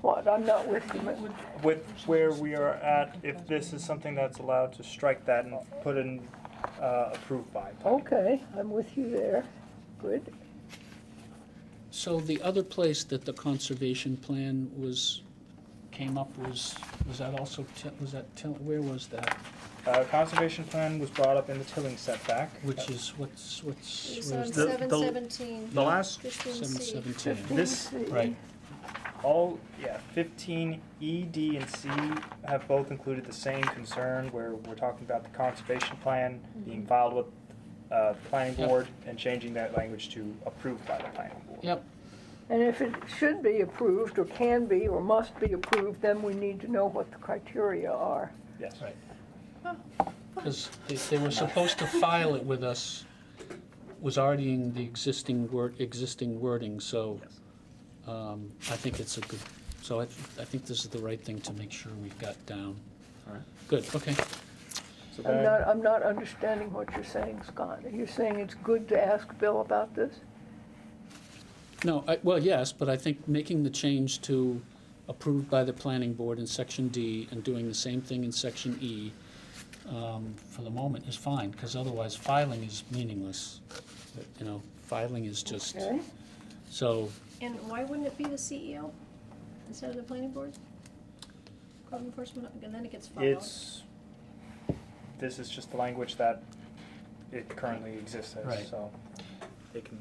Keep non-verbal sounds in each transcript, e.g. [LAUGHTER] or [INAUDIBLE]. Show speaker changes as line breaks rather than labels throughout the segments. what? I'm not with you.
with where we are at, if this is something that's allowed to strike that and put in uh, approved by.
Okay, I'm with you there. Good.
So the other place that the conservation plan was, came up was, was that also, Ti- was that, Til- where was that?
Uh, Conservation plan was brought up in the tilling setback.
Which is, what's, what's,
It's
where's that?
on
the-
seven
the-
seventeen,
The last,
fifteen
Seven
C.
seventeen.
this,
Right,
all, yeah, fifteen E, D, and C have both included the same concern where we're talking about the conservation plan being filed with uh, the planning
Yep.
board and changing that language to approved by the planning board.
yep,
And if it should be approved, or can be, or must be approved, then we need to know what the criteria are.
Yes.
right. Because they, they were supposed to file it with us, was already in the existing word, existing wording, so um, I think it's a good, so I, I think this is the right thing to make sure we've got down.
All right.
Good, okay.
So
I'm
then,
not, I'm not understanding what you're saying, Scott. You're saying it's good to ask Bill about this?
No, I, well, yes, but I think making the change to approved by the planning board in section D and doing the same thing in section E, um, for the moment is fine, because otherwise filing is meaningless. You know, filing is just,
Okay?
so,
And why wouldn't it be the CEO instead of the planning board? Code enforcement, and then it gets filed.
it's, this is just the language that it currently exists
Right.
as, so. It can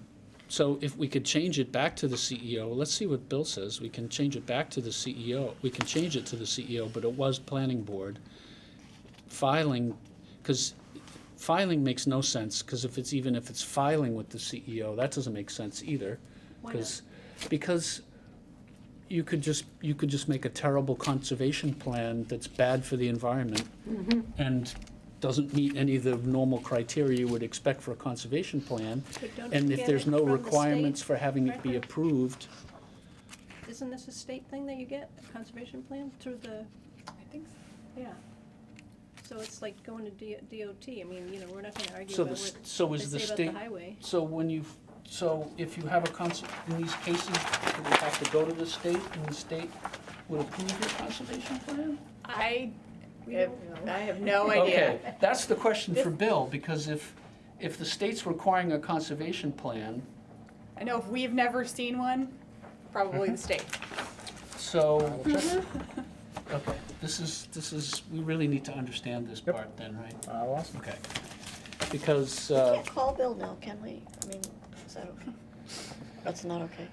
so if we could change it back to the CEO, let's see what Bill says, we can change it back to the CEO, we can change it to the CEO, but it was planning board. Filing, because filing makes no sense, because if it's, even if it's filing with the CEO, that doesn't make sense either.
Why not?
Because, because you could just, you could just make a terrible conservation plan that's bad for the environment
Mm-hmm.
and doesn't meet any of the normal criteria you would expect for a conservation plan.
But don't
And
you
if
get
there's
it
no
from the
requirements
state
for having it be
record?
approved,
Isn't this a state thing that you get, a conservation plan through the,
I think so.
yeah. So it's like going to D- DOT, I mean, you know, we're not gonna argue
so
about
the,
what
s- so
they
is the
say
state.
about the highway.
So when you, so if you have a cons, in these cases, do we have to go to the state and the state would approve your conservation plan?
I,
We
have-
don't know.
I have no idea.
Okay, that's the question for Bill, because if, if the state's requiring a conservation plan,
I know if we've never seen one, probably the state.
so.
Mm-hmm.
Okay, this is, this is, we really need to understand this
Yep.
part then, right?
Uh, last
Okay. Because,
We
uh,
can't call Bill now, can we? I mean, is that okay? That's not okay.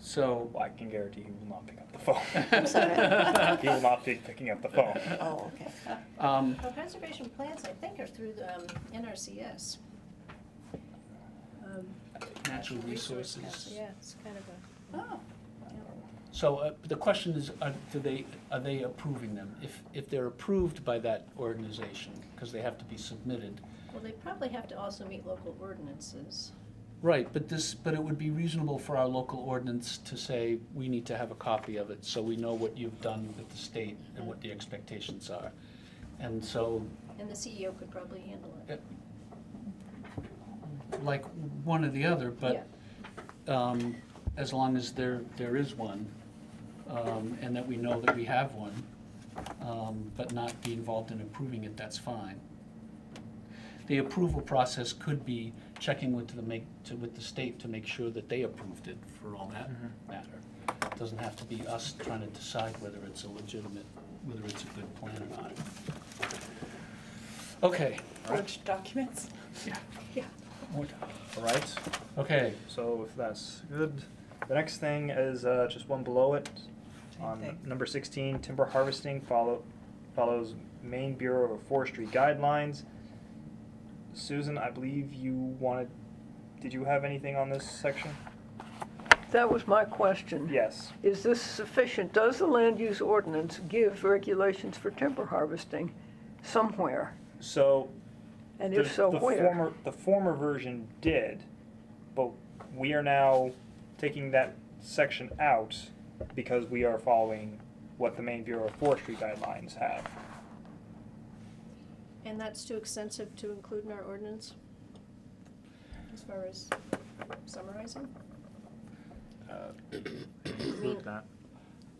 so,
Well, I can guarantee he will not pick up the phone. [LAUGHS]
I'm sorry.
[LAUGHS]
he will not be picking up the phone.
Oh, okay.
um,
Well, conservation plans, I think, are through the um, NRCS. Um,
natural
Resource
resources.
Council, Yeah, it's kind of a,
Oh,
So uh, the question is, are, do they, are they approving them? If, if they're approved by that organization, because they have to be submitted.
well, they probably have to also meet local ordinances.
Right, but this, but it would be reasonable for our local ordinance to say, we need to have a copy of it, so we know what you've done with the state and what the expectations are. And so,
And the CEO could probably handle it.
like, one or the other,
Yeah.
but, um, as long as there, there is one, um, and that we know that we have one, um, but not be involved in approving it, that's fine. The approval process could be checking with the make, to, with the state to make sure that they approved it for all that matter. It Doesn't have to be us trying to decide whether it's a legitimate, whether it's a good plan or not. Okay.
forged documents.
All right.
Okay,
So if that's good, the next thing is uh, just one below it. On
thing.
number 16, timber harvesting follow, follows Maine Bureau of Forestry guidelines. Susan, I believe you wanted. Did you have anything on this section?
That was my question.
Yes.
Is this sufficient? Does the land use ordinance give regulations for timber harvesting somewhere?
So
And
the,
if so,
the
where?
former the former version did, but we are now taking that section out because we are following what the Maine Bureau of Forestry guidelines have.
And that's too extensive to include in our ordinance? As far as summarizing?
Uh, [COUGHS]
include
that.